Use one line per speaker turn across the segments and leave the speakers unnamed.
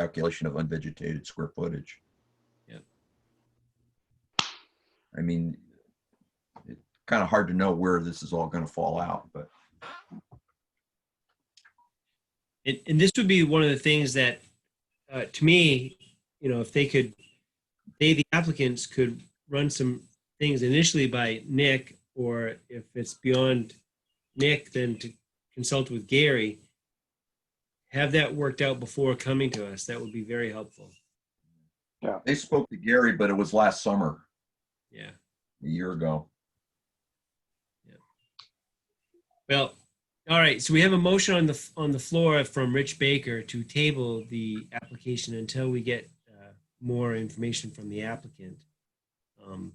calculation of unvegetated square footage.
Yep.
I mean, it's kind of hard to know where this is all going to fall out, but
And, and this would be one of the things that, uh, to me, you know, if they could, they, the applicants could run some things initially by Nick, or if it's beyond Nick, then to consult with Gary. Have that worked out before coming to us. That would be very helpful.
they spoke to Gary, but it was last summer,
Yeah.
a year ago.
Well, all right, so we have a motion on the, on the floor from Rich Baker to table the application until we get uh, more information from the applicant. Um,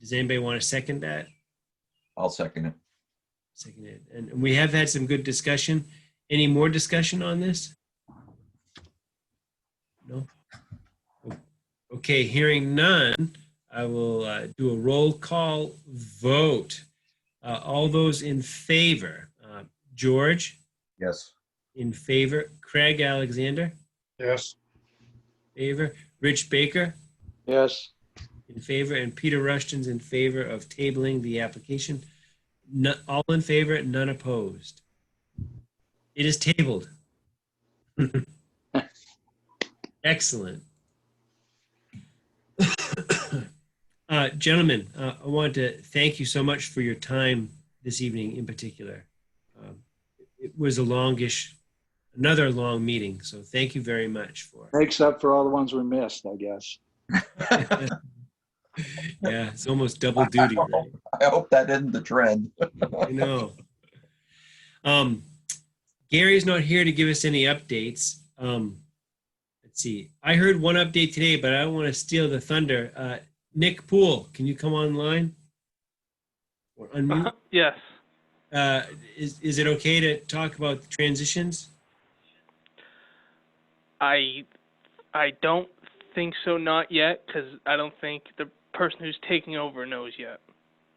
Does anybody want to second that?
I'll second it.
Second it. And we have had some good discussion. Any more discussion on this? No? Okay, hearing none, I will uh, do a roll call vote. Uh, All those in favor, uh, George?
Yes.
In favor, Craig Alexander,
Yes.
favor, Rich Baker,
Yes.
in favor, and Peter Rushton's in favor of tabling the application. No- All in favor, none opposed. It is tabled. Excellent. Uh, Gentlemen, uh, I want to thank you so much for your time this evening in particular. Um, It was a longish, another long meeting, so thank you very much for.
Makes up for all the ones we missed, I guess.
Yeah, it's almost double duty. Right?
I hope that isn't the trend.
I know. Um, Gary's not here to give us any updates. Um, let's see. I heard one update today, but I don't want to steal the thunder. Uh, Nick Poole, can you come online or unmute?
Yes.
Uh, is is it okay to talk about the transitions?
I I don't think so not yet cuz I don't think the person who's taking over knows yet.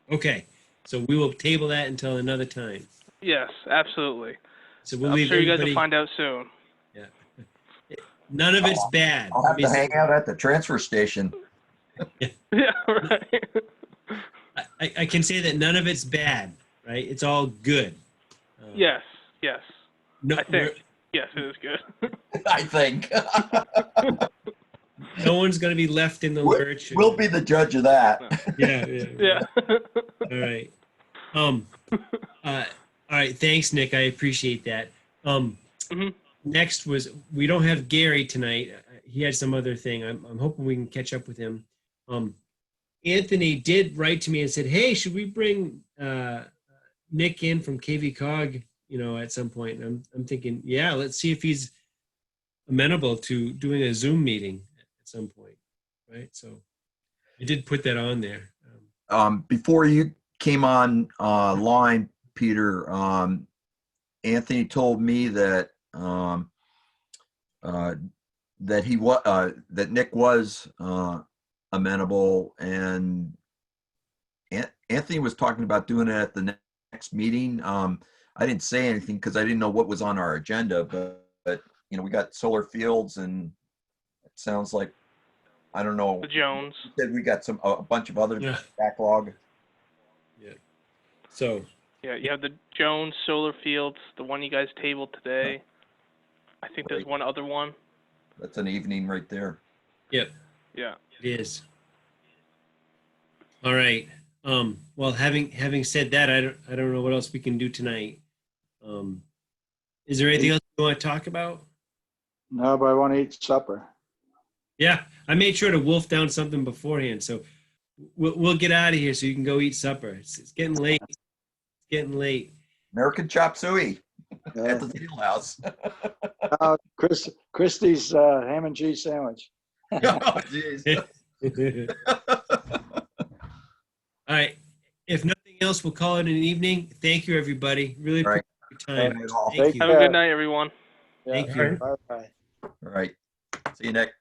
Okay, so we will table that until another time.
Yes, absolutely.
So we'll
I'm
leave
sure you guys
everybody.
will find out soon.
none of it's bad.
I'll have to hang out at the transfer station.
Yeah, right.
I- I, I can say that none of it's bad, right? It's all good. Uh,
yes. Yes.
No,
I think yes, it is good.
I think.
we're- no one's going to be left in the
We'll-
lurch.
We'll be the judge of that.
Yeah, yeah.
yeah.
All right. Um. Uh. All right. Thanks, Nick. I appreciate that. Um.
Mhm.
Next was we don't have Gary tonight. Uh, He had some other thing. I'm I'm hoping we can catch up with him. Um. Anthony did write to me and said, "Hey, should we bring uh, Nick in from KV Cog? You know, at some point." And I'm I'm thinking, yeah, let's see if he's amenable to doing a Zoom meeting at some point, right? So, I did put that on there. Um,
um, before you came on uh, line, Peter, um, Anthony told me that um, uh, that he was uh, that Nick was uh, amenable, and An- Anthony was talking about doing it at the ne- next meeting. Um, I didn't say anything because I didn't know what was on our agenda, but, but you know we got solar fields, and it sounds like I don't know.
The Jones.
Said we got some a a bunch of other
yeah.
backlog.
So,
Yeah, you have the Jones solar fields, the one you guys tabled today. I think there's
Right.
one other one.
That's an evening right there.
Yeah.
It is. All right. Um, well, having having said that, I don't I don't know what else we can do tonight. Um, is there anything else you want to talk about?
No, but I want to eat supper.
Yeah, I made sure to wolf down something beforehand, so we'll we'll get out of here so you can go eat supper. It's, it's getting late. It's getting late.
American chop suey at
Uh,
the Field House.
uh, Chris, Christie's uh, ham and cheese sandwich.
Oh, geez.
All right. If nothing else, we'll call it an evening. Thank you, everybody. Really
All right.
appreciate your time.
All
Thank
Thank
you.
Have a
Yeah.
good night, everyone.
Yeah.
Thank you.
Bye-bye.
right. See you, Nick.